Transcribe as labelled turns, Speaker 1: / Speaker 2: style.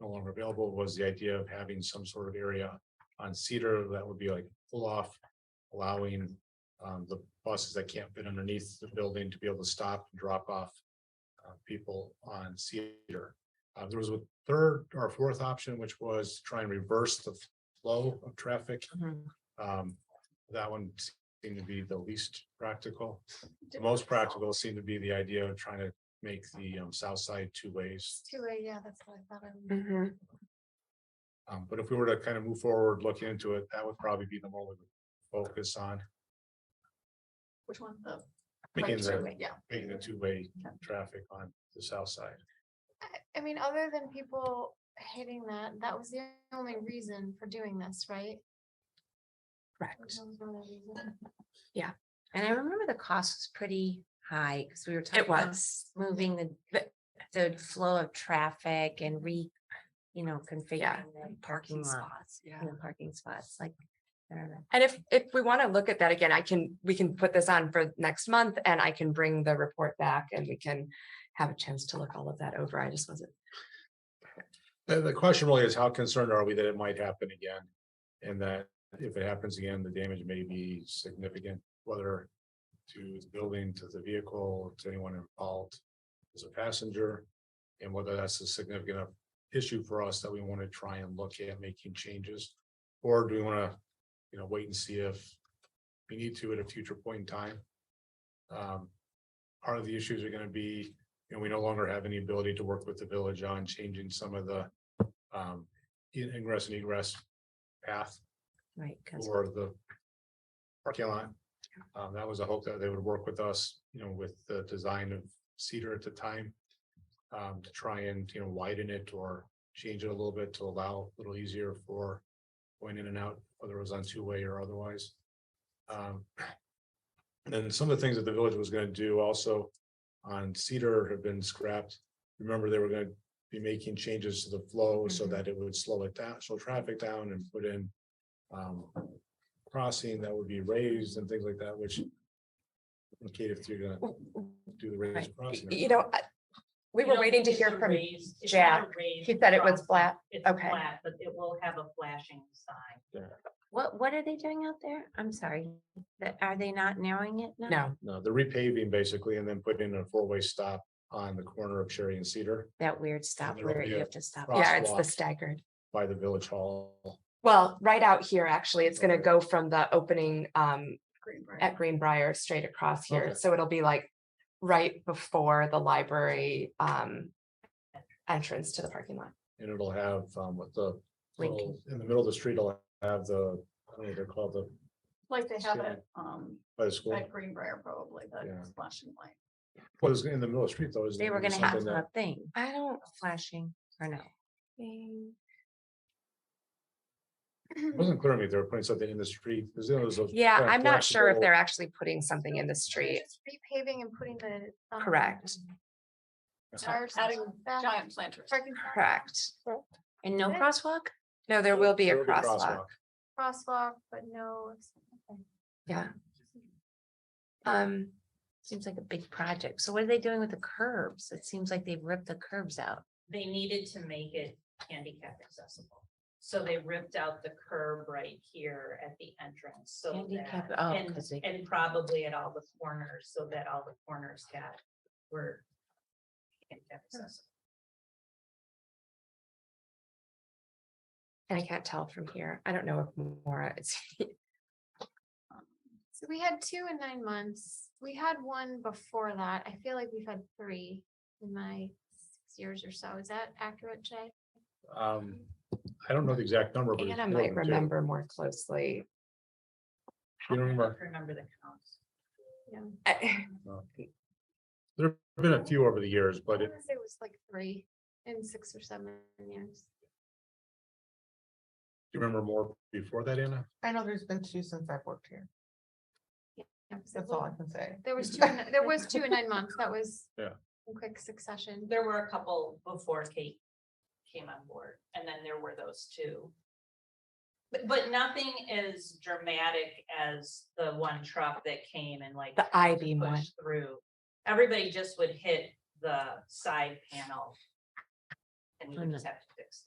Speaker 1: no longer available was the idea of having some sort of area on Cedar that would be like pull off. Allowing um the buses that can't fit underneath the building to be able to stop and drop off. Uh, people on Cedar. Uh, there was a third or fourth option, which was to try and reverse the flow of traffic.
Speaker 2: Mm-hmm.
Speaker 1: Um, that one seemed to be the least practical. The most practical seemed to be the idea of trying to make the um south side two ways.
Speaker 3: Two, uh, yeah, that's what I thought. I remembered.
Speaker 4: Mhm.
Speaker 1: Um, but if we were to kind of move forward, look into it, that would probably be the one we would focus on.
Speaker 3: Which one? The right
Speaker 1: Making
Speaker 3: two,
Speaker 1: the,
Speaker 3: right, Yeah.
Speaker 1: making the two-way
Speaker 3: Okay.
Speaker 1: traffic on the south side.
Speaker 3: I- I mean, other than people hating that, that was the only reason for doing this, right? That
Speaker 4: Correct.
Speaker 3: was the only reason.
Speaker 2: And I remember the cost was pretty high because we were talking
Speaker 4: It
Speaker 2: about
Speaker 4: was.
Speaker 2: moving the,
Speaker 4: But-
Speaker 2: the flow of traffic and re, you know, configuring the parking lot.
Speaker 4: spots, Yeah.
Speaker 2: you know, Parking spots, like, I don't know.
Speaker 4: And if, if we want to look at that again, I can, we can put this on for next month and I can bring the report back and we can have a chance to look all of that over. I just wasn't.
Speaker 1: The, the question really is how concerned are we that it might happen again? And that if it happens again, the damage may be significant, whether to the building, to the vehicle, to anyone involved as a passenger. And whether that's a significant enough issue for us that we want to try and look at making changes. Or do we want to, you know, wait and see if we need to at a future point in time? Um, Part of the issues are going to be and we no longer have any ability to work with the village on changing some of the um in- ingress and egress path
Speaker 2: right? 'cause-
Speaker 1: or the parking lot. Um, that was a hope that they would work with us, you know, with the design of Cedar at the time. Um, to try and, you know, widen it or change it a little bit to allow a little easier for going in and out, whether it was on two-way or otherwise. Um, and then some of the things that the village was gonna do also on Cedar have been scrapped. Remember, they were gonna be making changes to the flow so
Speaker 2: Mhm.
Speaker 1: that it would slow it down, slow traffic down and put in um, crossing that would be raised and things like that, which indicate if you're gonna do the raised
Speaker 4: Right.
Speaker 1: crossing. or
Speaker 4: You
Speaker 1: not.
Speaker 4: know, I- we
Speaker 5: You
Speaker 4: were
Speaker 5: don't
Speaker 4: waiting to
Speaker 5: think it's
Speaker 4: hear
Speaker 5: a
Speaker 4: from,
Speaker 5: raised- it's not a
Speaker 4: Jack.
Speaker 5: raised
Speaker 4: he said it was
Speaker 5: crossing.
Speaker 4: flat.
Speaker 5: It's
Speaker 4: okay.
Speaker 5: flat, But it will have a flashing sign.
Speaker 2: What, what are they doing out there? I'm sorry, that, are they not narrowing it now?
Speaker 4: No,
Speaker 1: No, the repaving basically, and then put in a four-way stop on the corner of Cherry and Cedar
Speaker 2: That weird stop
Speaker 1: there'll
Speaker 2: where
Speaker 1: be
Speaker 2: you
Speaker 1: a
Speaker 2: have to stop.
Speaker 1: cross-
Speaker 4: yeah, it's the
Speaker 1: Crosswalk.
Speaker 4: staggered.
Speaker 1: by the village hall.
Speaker 4: Well, right out here, actually, it's going to
Speaker 1: Okay.
Speaker 4: go from the opening um
Speaker 3: Greenbrier.
Speaker 4: at Greenbrier straight across
Speaker 1: Okay.
Speaker 4: here. So it'll be like right before the library um entrance to the parking lot.
Speaker 1: And it'll have, um, with the,
Speaker 2: Lincoln.
Speaker 1: little- in the middle of the street, it'll have the, I don't know, what they're called the,
Speaker 3: Like they have
Speaker 1: Yeah.
Speaker 3: it, um,
Speaker 1: by the school.
Speaker 3: at Greenbrier probably,
Speaker 1: Yeah.
Speaker 3: the flashing light.
Speaker 1: What is in the middle of the street though? is
Speaker 2: They were gonna have
Speaker 1: something
Speaker 2: a
Speaker 1: that-
Speaker 2: thing,
Speaker 4: I don't
Speaker 2: flashing or no?
Speaker 4: think.
Speaker 1: it Wasn't clear to me if they were putting something in the street. 'cause there was those
Speaker 4: Yeah,
Speaker 1: kind of
Speaker 4: I'm not sure if
Speaker 1: flexible-
Speaker 4: they're actually putting something in the
Speaker 3: They're
Speaker 4: street.
Speaker 3: just Repaving and putting the. um,
Speaker 4: Correct.
Speaker 3: Tires.
Speaker 5: Adding
Speaker 3: back-
Speaker 5: giant planters.
Speaker 3: parking
Speaker 4: Correct.
Speaker 2: And no
Speaker 3: Yeah.
Speaker 2: crosswalk?
Speaker 4: No, there will be
Speaker 1: There
Speaker 4: a crosswalk.
Speaker 3: Crosswalk, but no. okay.
Speaker 4: Yeah. Um,
Speaker 2: Seems like a big project. So what are they doing with the curbs? It seems like they've ripped the curbs out.
Speaker 5: They needed to make it handicap accessible. So they ripped out the curb right here at the entrance, so
Speaker 2: Handicap,
Speaker 5: that.
Speaker 2: oh,
Speaker 5: and-
Speaker 2: 'cause they-
Speaker 5: And probably at all the corners, so that all the corners got, were handicap accessible.
Speaker 4: and I can't tell from here. I don't know if Mora is.
Speaker 3: So we had two in nine months. We had one before that. I feel like we've had three in my six years or so. Is that accurate, Jay?
Speaker 1: Um, I don't know the exact number, but. it's
Speaker 4: Anna
Speaker 1: more
Speaker 4: might
Speaker 1: than two.
Speaker 4: remember more closely.
Speaker 1: You don't
Speaker 5: I
Speaker 1: remember?
Speaker 5: don't Remember the counts.
Speaker 4: I-
Speaker 1: There've been a few over the years,
Speaker 3: I
Speaker 1: but it,
Speaker 3: wanna say It was like three in six or seven years.
Speaker 1: do you remember more before that, Anna?
Speaker 6: I know there's been two since I've worked here.
Speaker 3: Yeah, 'cause it
Speaker 6: That's all I
Speaker 3: was-
Speaker 6: can say.
Speaker 3: There was two, in- there was two in nine months. That was
Speaker 1: Yeah.
Speaker 3: in quick succession.
Speaker 5: There were a couple before Kate came on board, and then there were those two. But, but nothing as dramatic as the one truck that came and like
Speaker 4: The I beam one.
Speaker 5: pushed through. Everybody just would hit the side panel. And you would
Speaker 2: Mhm.
Speaker 5: just have to fix